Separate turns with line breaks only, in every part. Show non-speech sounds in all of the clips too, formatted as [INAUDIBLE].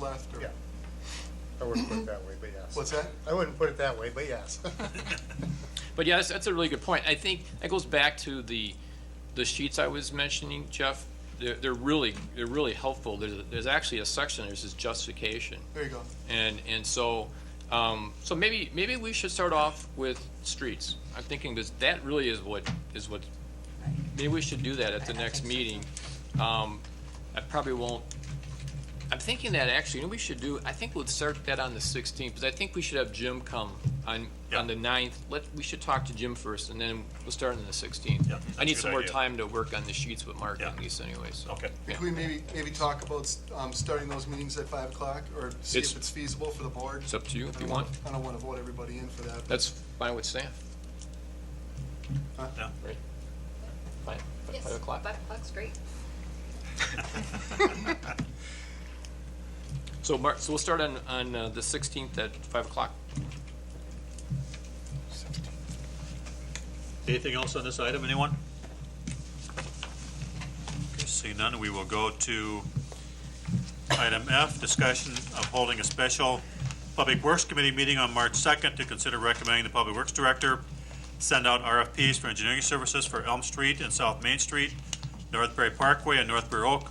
left or?
Yeah. I wouldn't put it that way, but yes.
What's that?
I wouldn't put it that way, but yes. [LAUGHS]
But yeah, that's, that's a really good point. I think that goes back to the, the sheets I was mentioning, Jeff. They're, they're really, they're really helpful. There's, there's actually a section, there's this justification.
There you go.
And, and so, um, so maybe, maybe we should start off with streets. I'm thinking this, that really is what, is what, maybe we should do that at the
I- I
next
think so.
meeting. Um, I probably won't, I'm thinking that actually, you know, we should do, I think we'll start that on the sixteenth, because I think we should have Jim come on, on the ninth. Let, we should talk to Jim first, and then we'll start on the sixteenth.
Yeah,
I need
that's a
some
good
more
idea.
time to work on the sheets with Mark and
Yeah. Oh.
Lisa anyway, so.
Okay.
Yeah.
Can we maybe, maybe talk about um, starting those meetings at five o'clock or see
It's-
if it's feasible for the board?
It's up to you if
I
you
don't-
want.
I don't want to vote everybody in for that. but-
That's fine with Sam,
Yeah.
right? Fine,
Yes,
five o'clock?
Five o'clock's great.
So Mark, so we'll start on, on uh, the sixteenth at five o'clock.
Anything else on this item, anyone? Okay, seeing none, we will go to item F, discussion of holding a special Public Works Committee meeting on March 2nd to consider recommending the Public Works Director send out RFPs for engineering services for Elm Street and South Main Street, Northbury Parkway and Northbury Oak,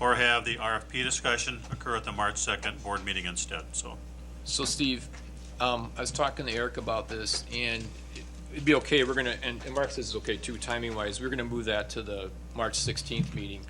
or have the RFP discussion occur at the March 2nd board meeting instead, so.
So Steve, um, I was talking to Eric about this and it'd be okay, we're gonna, and, and Mark says it's okay too, timing wise, we're gonna move that to the March sixteenth meeting.